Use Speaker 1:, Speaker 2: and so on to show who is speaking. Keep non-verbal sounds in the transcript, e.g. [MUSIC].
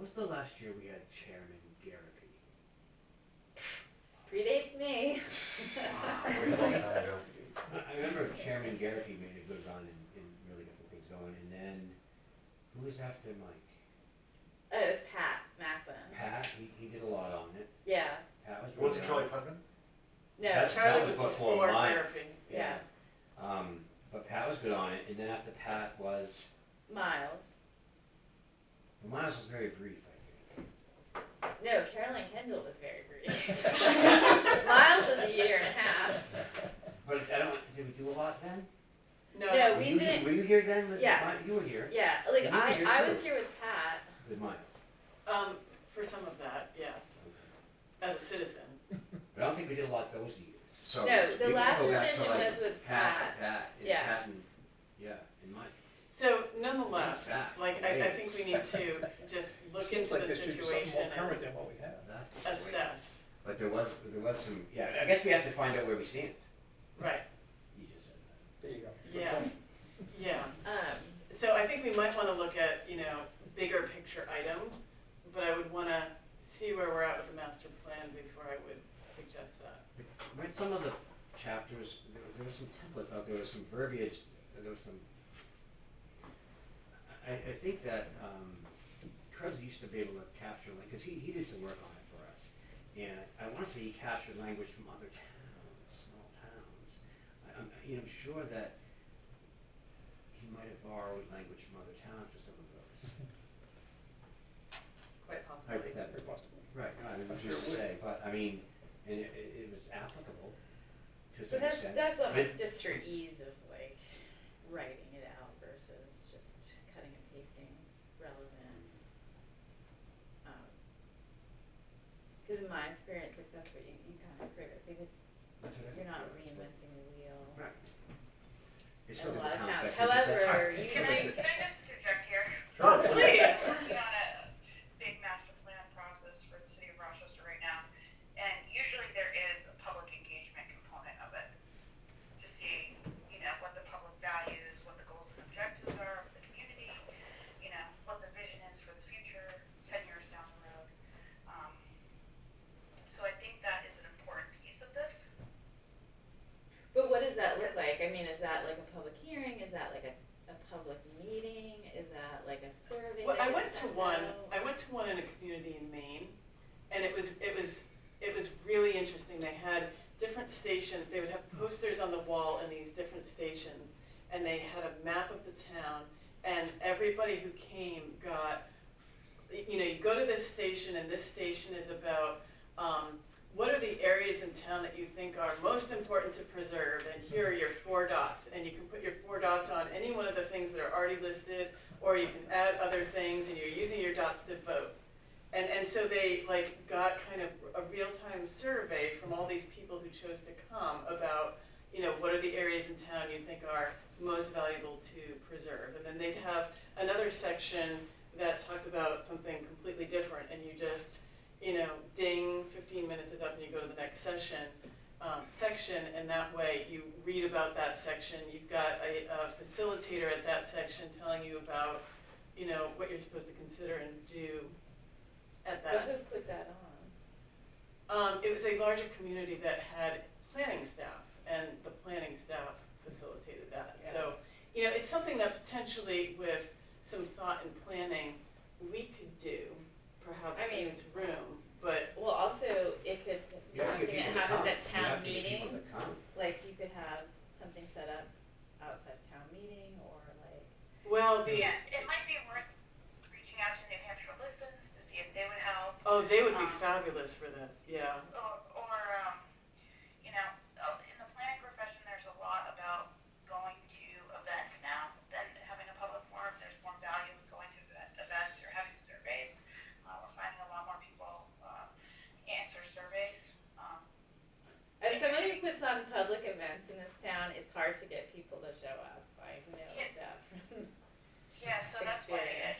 Speaker 1: was the last year we had Chairman Garrity?
Speaker 2: Predates me. Oh,
Speaker 3: Way long time ago.
Speaker 1: I I remember Chairman Garrity made a good run and, and really got the things going, and then, who was after Mike?
Speaker 2: Oh, it was Pat Macklin.
Speaker 1: Pat, he, he did a lot on it,
Speaker 2: Yeah.
Speaker 1: Pat was really
Speaker 3: Was it Charlie
Speaker 1: on it.
Speaker 3: Putnam?
Speaker 2: No.
Speaker 1: That's-
Speaker 4: Charlie
Speaker 1: that
Speaker 4: was
Speaker 1: was before
Speaker 4: before
Speaker 1: mine.
Speaker 4: Murphy.
Speaker 2: Yeah.
Speaker 1: Um, but Pat was good on it, and then after Pat was,
Speaker 2: Miles.
Speaker 1: Miles was very brief, I think.
Speaker 2: No, Caroline Kendall was very
Speaker 1: [LAUGHS]
Speaker 2: brief. [LAUGHS] Miles was a year and a half.
Speaker 1: But I don't, did we do a lot then?
Speaker 4: No.
Speaker 2: No.
Speaker 1: Were
Speaker 2: we
Speaker 1: you-
Speaker 2: didn't-
Speaker 1: Were you here then with
Speaker 2: Yeah.
Speaker 1: Mi- You were here
Speaker 2: Yeah, like
Speaker 1: You were
Speaker 2: I,
Speaker 1: here
Speaker 2: I
Speaker 1: too.
Speaker 2: was here with Pat.
Speaker 1: with Miles.
Speaker 4: Um, for some of that, yes, as a citizen.
Speaker 1: But I don't think we did a lot those years. So
Speaker 2: No,
Speaker 1: we
Speaker 2: the
Speaker 1: could
Speaker 2: last
Speaker 1: go back to,
Speaker 2: revision
Speaker 1: like,
Speaker 2: was with Pat.
Speaker 1: Pat, Pat, and
Speaker 2: Yeah.
Speaker 1: Pat and, yeah, and Mike.
Speaker 4: So nonetheless,
Speaker 1: That's bad.
Speaker 4: like, I, I
Speaker 1: It
Speaker 4: think
Speaker 1: is.
Speaker 4: we need to just look into the situation
Speaker 5: Seems like there should be something more
Speaker 4: and
Speaker 5: current than what we have.
Speaker 1: That's the way-
Speaker 4: assess,
Speaker 1: But there was there was some yeah. I guess we have to find out where we stand.
Speaker 4: right,
Speaker 1: You just said that.
Speaker 5: There you go. Good
Speaker 4: yeah,
Speaker 5: point.
Speaker 4: yeah.
Speaker 2: Um,
Speaker 4: So I think we might wanna look at, you know, bigger picture items, but I would wanna see where we're at with the master plan before I would suggest that.
Speaker 1: Read some of the chapters. There, there were some templates out there. There was some verbiage. There was some. I, I think that um, Krebs used to be able to capture like because he, he did some work on it for us, and I want to say he captured language from other towns, small towns. I, I'm you know I'm sure that he might have borrowed language from other towns for some of those.
Speaker 4: Quite possibly.
Speaker 1: Hypothetically.
Speaker 5: Very possibly.
Speaker 1: Right, no, I mean,
Speaker 5: I'm
Speaker 1: just to
Speaker 5: sure it
Speaker 1: say, but, I mean, and it, it it was applicable to
Speaker 2: but
Speaker 1: some
Speaker 2: that's
Speaker 1: extent.
Speaker 2: that's almost
Speaker 1: But-
Speaker 2: just for ease of like writing it out versus just cutting and pasting relevant. Because in my experience, like that's what you, you kind of create because
Speaker 1: That's what I think,
Speaker 2: you're not
Speaker 1: yeah.
Speaker 2: reinventing the wheel.
Speaker 1: Right. It's still
Speaker 2: In a
Speaker 1: the
Speaker 2: lot of
Speaker 1: town's
Speaker 2: towns.
Speaker 1: best interest, that's
Speaker 2: However,
Speaker 1: right.
Speaker 2: you
Speaker 1: It's
Speaker 6: Can
Speaker 1: still
Speaker 6: I,
Speaker 1: the-
Speaker 6: can I just interject here?
Speaker 4: Oh, please.
Speaker 6: We're working on a big master plan process for the city of Rochester right now, and usually there is a public engagement component of it. To see, you know, what the public values, what the goals and objectives are of the community, you know, what the vision is for the future, ten years down the road. Um, So I think that is an important piece of this.
Speaker 2: But what does that look like? I mean, is that like a public hearing? Is that like a, a public meeting? Is that like a survey?
Speaker 4: Well,
Speaker 2: that
Speaker 4: I
Speaker 2: gets
Speaker 4: went to
Speaker 2: sent
Speaker 4: one,
Speaker 2: out?
Speaker 4: I went to one in a community in Maine, and it was, it was, it was really interesting, they had different stations, they would have posters on the wall in these different stations, and they had a map of the town, and everybody who came got, you know, you go to this station, and this station is about, um, what are the areas in town that you think are most important to preserve, and here are your four dots, and you can put your four dots on any one of the things that are already listed, or you can add other things and you're using your dots to vote. And, and so they like got kind of a real-time survey from all these people who chose to come about, you know, what are the areas in town you think are most valuable to preserve? And then they'd have another section that talks about something completely different and you just, you know, ding, fifteen minutes is up and you go to the next session, um, section and that way you read about that section. You've got a, a facilitator at that section telling you about, you know, what you're supposed to consider and do at
Speaker 2: But
Speaker 4: that.
Speaker 2: who put that on?
Speaker 4: Um, it was a larger community that had planning staff and the planning staff facilitated that. So, you know, it's something that potentially with some thought and planning, we could do perhaps
Speaker 2: I
Speaker 4: in
Speaker 2: mean-
Speaker 4: this room, but
Speaker 2: Well, also it could be
Speaker 1: You have to
Speaker 2: something
Speaker 1: get people
Speaker 2: that
Speaker 1: to
Speaker 2: happens
Speaker 1: come.
Speaker 2: at
Speaker 1: You
Speaker 2: town
Speaker 1: have to get
Speaker 2: meeting.
Speaker 1: people to come.
Speaker 2: Like you could have something set up outside town meeting or like.
Speaker 4: well, the,
Speaker 6: Yeah, it might be worth reaching out to New Hampshire Listens to see if they would help,
Speaker 4: oh, they would be
Speaker 6: Um,
Speaker 4: fabulous for this, yeah.
Speaker 6: or, or um, you know, uh, in the planning profession, there's a lot about going to events now than having a public forum. There's more value in going to event- events or having surveys. Uh, we're finding a lot more people uh, answer surveys. Um,
Speaker 2: As someone who puts on public events in this town, it's hard to get people to show up. I know
Speaker 6: Yeah.
Speaker 2: that from
Speaker 6: yeah, so that's why it, um, uh, Um,